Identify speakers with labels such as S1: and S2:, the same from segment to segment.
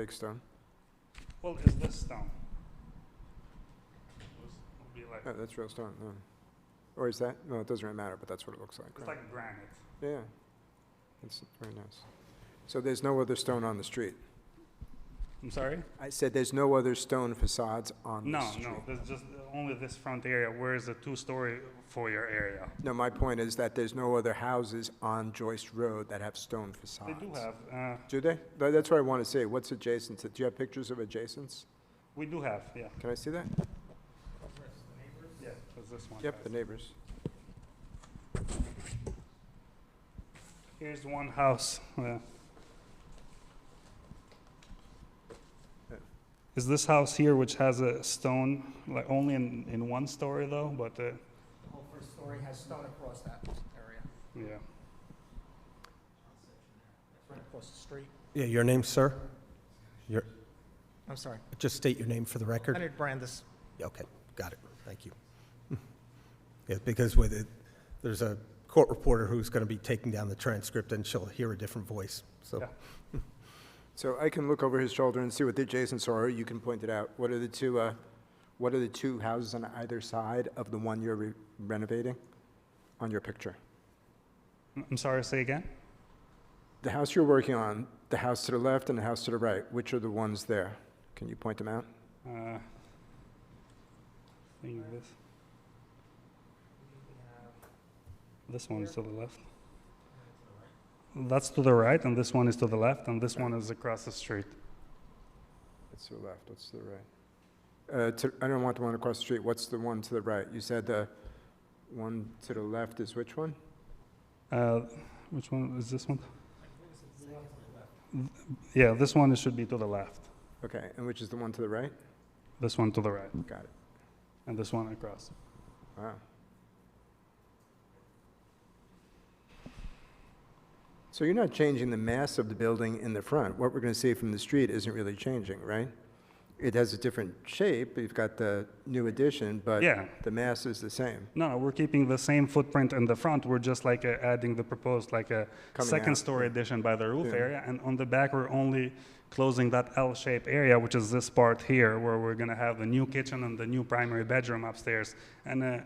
S1: Big stone.
S2: Well, is this stone? This would be like-
S1: Oh, that's real stone, no. Or is that? No, it doesn't really matter, but that's what it looks like.
S2: It's
S1: right?
S2: like granite.
S1: Yeah, that's very nice. So there's no other stone on the street?
S2: I'm sorry?
S1: I said there's no other stone facades on the
S2: No,
S1: street?
S2: no, there's just only this front area, where is the two-story foyer area?
S1: No, my point is that there's no other houses on Joyce Road that have stone
S2: They
S1: facades.
S2: do have, uh,
S1: Do they? Tha- That's what I want to say. What's adjacent to, do you have pictures of adjacents?
S2: we do have, yeah.
S1: Can I see that?
S2: Yeah, 'cause this one
S1: Yep, the
S2: has-
S1: neighbors.
S2: Here's one house. uh,
S1: Yeah.
S2: Is this house here, which has a stone, like only in, in one story though, but, uh,
S3: The whole first story has stone across that area.
S2: yeah.
S3: It's right across the street.
S4: Yeah, your name, sir?
S3: I'm sorry.
S4: Just state your name for the record.
S3: Leonard Brandis.
S4: Okay, got it. Thank you. Yeah, because with it, there's a court reporter who's going to be taking down the transcript, and she'll hear a different voice, so.
S2: Yeah.
S1: So I can look over his shoulder and see what the adjacents are, or you can point it out. What are the two, uh, what are the two houses on either side of the one you're re- renovating on your picture?
S2: I'm- I'm sorry, say again?
S1: The house you're working on, the house to the left and the house to the right, which are the ones there? Can you point them out?
S2: Uh, think this, this one's to the left. That's to the right, and this one is to the left, and this one is across the street.
S1: That's to the left, that's to the right. Uh, to, I don't want the one across the street, what's the one to the right? You said the one to the left is which one?
S2: Uh, which one is this one? Yeah, this one should be to the left.
S1: Okay, and which is the one to the right?
S2: This one to the right,
S1: Got it,
S2: and this one across.
S1: wow. So you're not changing the mass of the building in the front. What we're gonna see from the street isn't really changing, right? It has a different shape, you've got the new addition, but
S2: Yeah.
S1: the mass is the same.
S2: No, no, we're keeping the same footprint in the front. We're just like uh, adding the proposed like a
S1: Coming
S2: second
S1: out,
S2: story addition by the roof
S1: Yeah.
S2: area, and on the back we're only closing that L-shaped area, which is this part here, where we're gonna have the new kitchen and the new primary bedroom upstairs. And uh,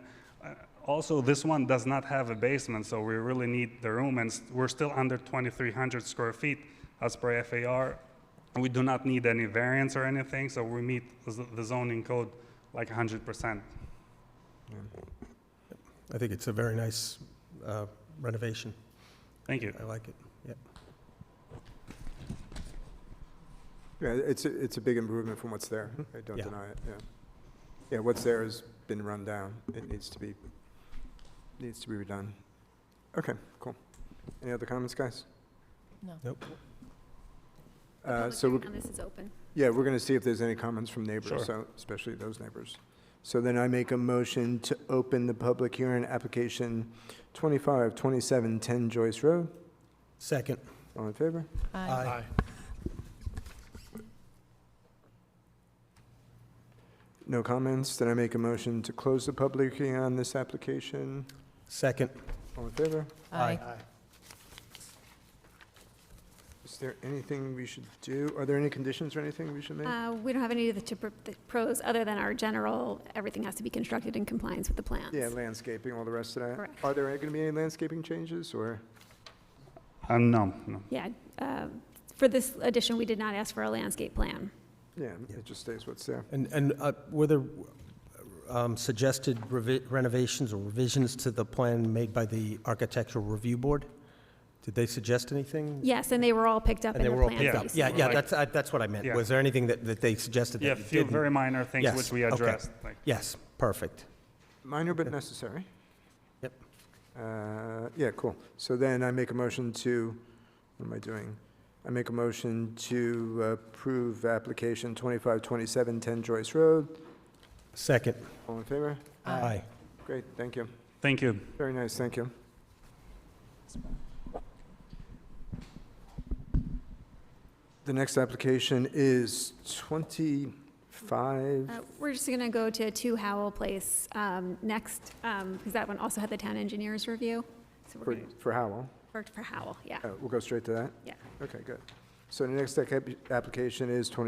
S2: uh, also, this one does not have a basement, so we really need the room, and s- we're still under 2,300 square feet as per FAR. We do not need any variance or anything, so we meet z- the zoning code like 100%.
S4: I think it's a very nice uh, renovation.
S2: Thank you.
S4: I like it.
S1: Yeah, it's, a- it's a big improvement from what's there. I don't
S4: Yeah.
S1: deny it, yeah. Yeah, what's there has been run down. It needs to be, needs to be redone. Okay, cool. Any other comments, guys?
S4: Nope.
S1: Uh,
S5: Public
S1: So,
S5: hearing
S1: we're-
S5: on this is open.
S1: yeah, we're going to see if there's any comments from
S2: Sure.
S1: neighbors, so, especially those neighbors. So then I make a motion to open the public hearing, application 252710 Joyce Road.
S4: Second.
S1: All in favor?
S4: Aye.
S1: No comments. Then I make a motion to close the public hearing on this application.
S4: Second.
S1: All in favor?
S4: Aye.
S1: Is there anything we should do? Are there any conditions or anything we should make?
S5: Uh, We don't have any of the to pr- the pros, other than our general, everything has to be constructed in compliance with the plans.
S1: Yeah, landscaping, all the rest of that.
S5: Correct.
S1: Are there going to be any landscaping changes or?
S2: Um, no, no.
S5: Yeah, uh, for this addition, we did not ask for a landscape plan.
S1: Yeah, it just stays what's there.
S4: And, and uh, were there um, suggested revi- renovations or revisions to the plan made by the Architectural Review Board? Did they suggest anything?
S5: Yes, and they were all picked up in
S4: And they
S5: the
S4: were all
S5: plans.
S4: picked
S5: that
S4: up?
S5: you
S4: Yeah,
S5: saw.
S4: yeah, that's, I- that's what I meant.
S2: Yeah.
S4: Was there anything that, that they suggested
S2: Yeah, a
S4: that you
S2: few
S4: didn't?
S2: very minor things
S4: Yes,
S2: which we
S4: okay.
S2: addressed. Like,
S4: Yes, perfect.
S1: Minor but necessary.
S4: Yep.
S1: Uh, Yeah, cool. So then I make a motion to, what am I doing? I make a motion to approve application 2527 10 Joyce Road.
S4: Second.
S1: All in favor?
S4: Aye.
S1: Great, thank you.
S2: thank you.
S1: Very nice, thank you. The next application is 25,
S5: Uh, We're just going to go to Two Howell Place um, next, because that one also had the town engineer's review. So we're
S1: for
S5: going to,
S1: for Howell.
S5: for Howell, yeah,
S1: Oh, We'll go straight to that?
S5: yeah.
S1: Okay, good. So the next application is 20